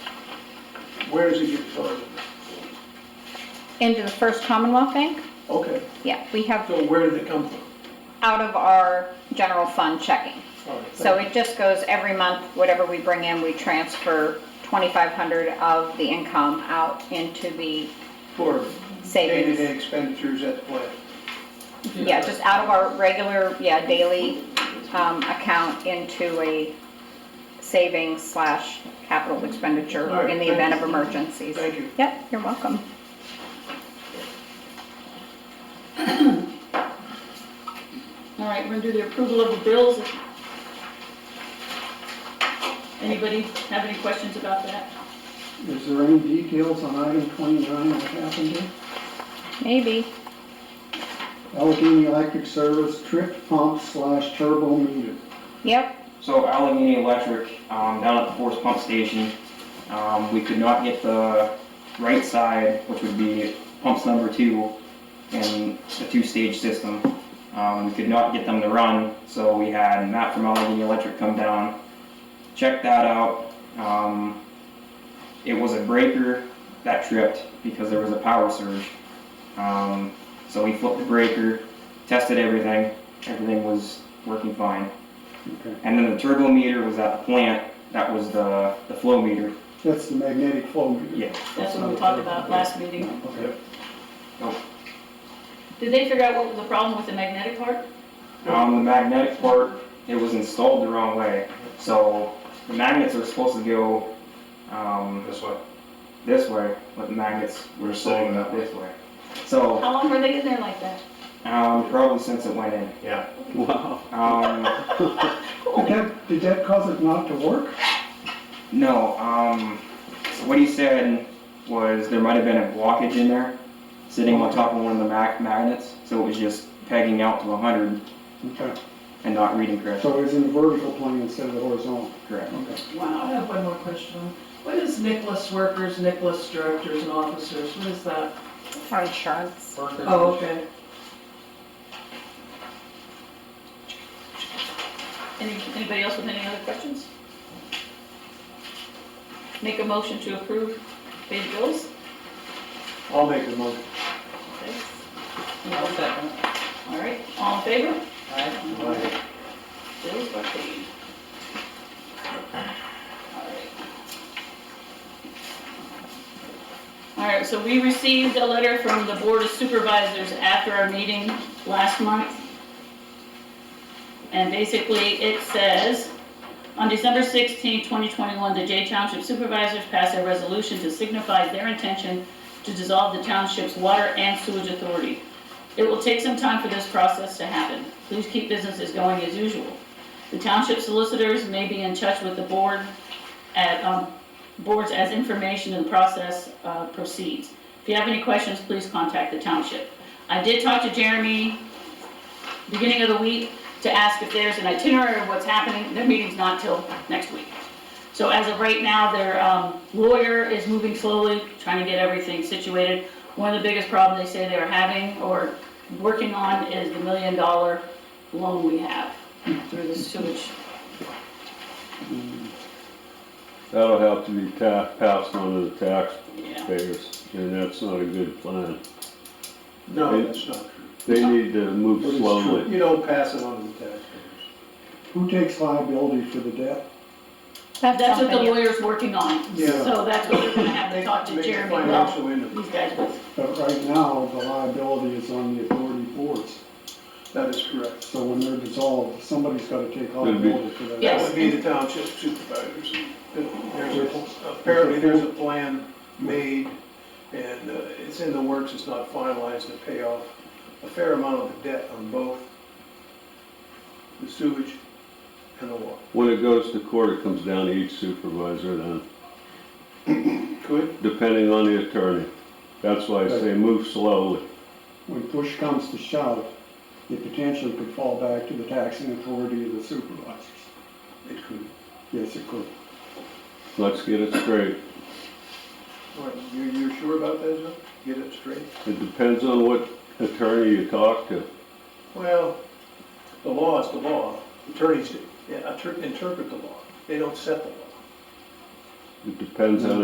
Where does it get started? Into the First Commonwealth Bank? Okay, Yeah, we have so where did it come from? out of our general fund checking. All right, So thank it just goes every month, whatever we bring in, we transfer 2,500 of the income out into the you. For savings. day-to-day expenditures at the plant. Yeah, just out of our regular, yeah, daily um, account into a savings slash capital expenditure All right, in the thank event you. of emergencies. Thank you. Yep, you're welcome. All right, we're gonna do the approval of the bills. Anybody have any questions about that? Is there any details on item 29, what happened here? Maybe. Allegheny Electric Service trip pump slash turbo meter. Yep, So Allegheny Electric, um, down at the Forest Pump Station, um, we could not get the right side, which would be pumps number two in the two-stage system. Um, we could not get them to run, so we had Matt from Allegheny Electric come down, check that out. Um, it was a breaker that tripped because there was a power surge. Um, so we flipped the breaker, tested everything, everything was working fine. Okay. And then the turbo meter was at the plant, that was the, the flow meter. That's the magnetic flow meter. Yeah. That's what we talked about last meeting. Okay. Did they figure out what was the problem with the magnetic part? Um, the magnetic part, it was installed the wrong way. So the magnets are supposed to go, um, This way. this way, but the magnets We're were saying sitting that up way. this way. So, How long were they in there like that? um, probably since it went in. Yeah. Um, Did that, did that cause it not to work? no, um, so what he said was there might have been a blockage in there, sitting on top of one of the mag- magnets, so it was just pegging out to hundred Okay. and not reading correctly. So it's in the vertical plane instead of the horizontal. Correct. Okay. Wow, I have one more question. What is Nicholas workers, Nicholas directors and officers? What is that? for insurance. Oh, okay. Any, anybody else with any other questions? Make a motion to approve paid bills? I'll make the motion. Okay. All right, all in favor? Aye. Bills are paid. All right. All right, so we received a letter from the Board of Supervisors after our meeting last month. And basically, it says, on December 16, 2021, the Jay Township Supervisors passed a resolution to signify their intention to dissolve the township's water and sewage authority. It will take some time for this process to happen. Please keep businesses going as usual. The township solicitors may be in touch with the board at, um, boards as information in the process uh, proceeds. If you have any questions, please contact the township. I did talk to Jeremy beginning of the week to ask if there's an itinerary of what's happening. Their meeting's not till next week. So as of right now, their um, lawyer is moving slowly, trying to get everything situated. One of the biggest problems they say they're having or working on is the million dollar loan we have through the sewage. That'll have to be ta- passed on to the Yeah. taxpayers, and that's not a good plan. No, that's not true. They need to move What is slowly. You don't pass it on to the taxpayers. Who takes liability for the debt? That's what the something you- lawyer's working on. Yeah. So that's what we're gonna have to talk to Make a Jeremy about, Financial interview. these guys with. But right now, the liability is on the authority boards. That is correct. So when they're dissolved, somebody's got to take It'd be- liability for that. That Yes. would be the township supervisors. There's a- Apparently, there's a plan made, and uh, it's in the works, it's not finalized to pay off a fair amount of the debt on both the sewage and the water. When it goes to court, it comes down to each supervisor then, Could, depending on the attorney. That's why I say move slowly. When push comes to shove, it potentially could fall back to the taxing authority of the supervisors. it could. Yes, it could. Let's get it straight. All right, You're, you're sure about that, Joe? Get it straight? It depends on what attorney you talk to. Well, the law is the law. Attorneys yeah, inter- interpret the law. They don't set the law. It depends on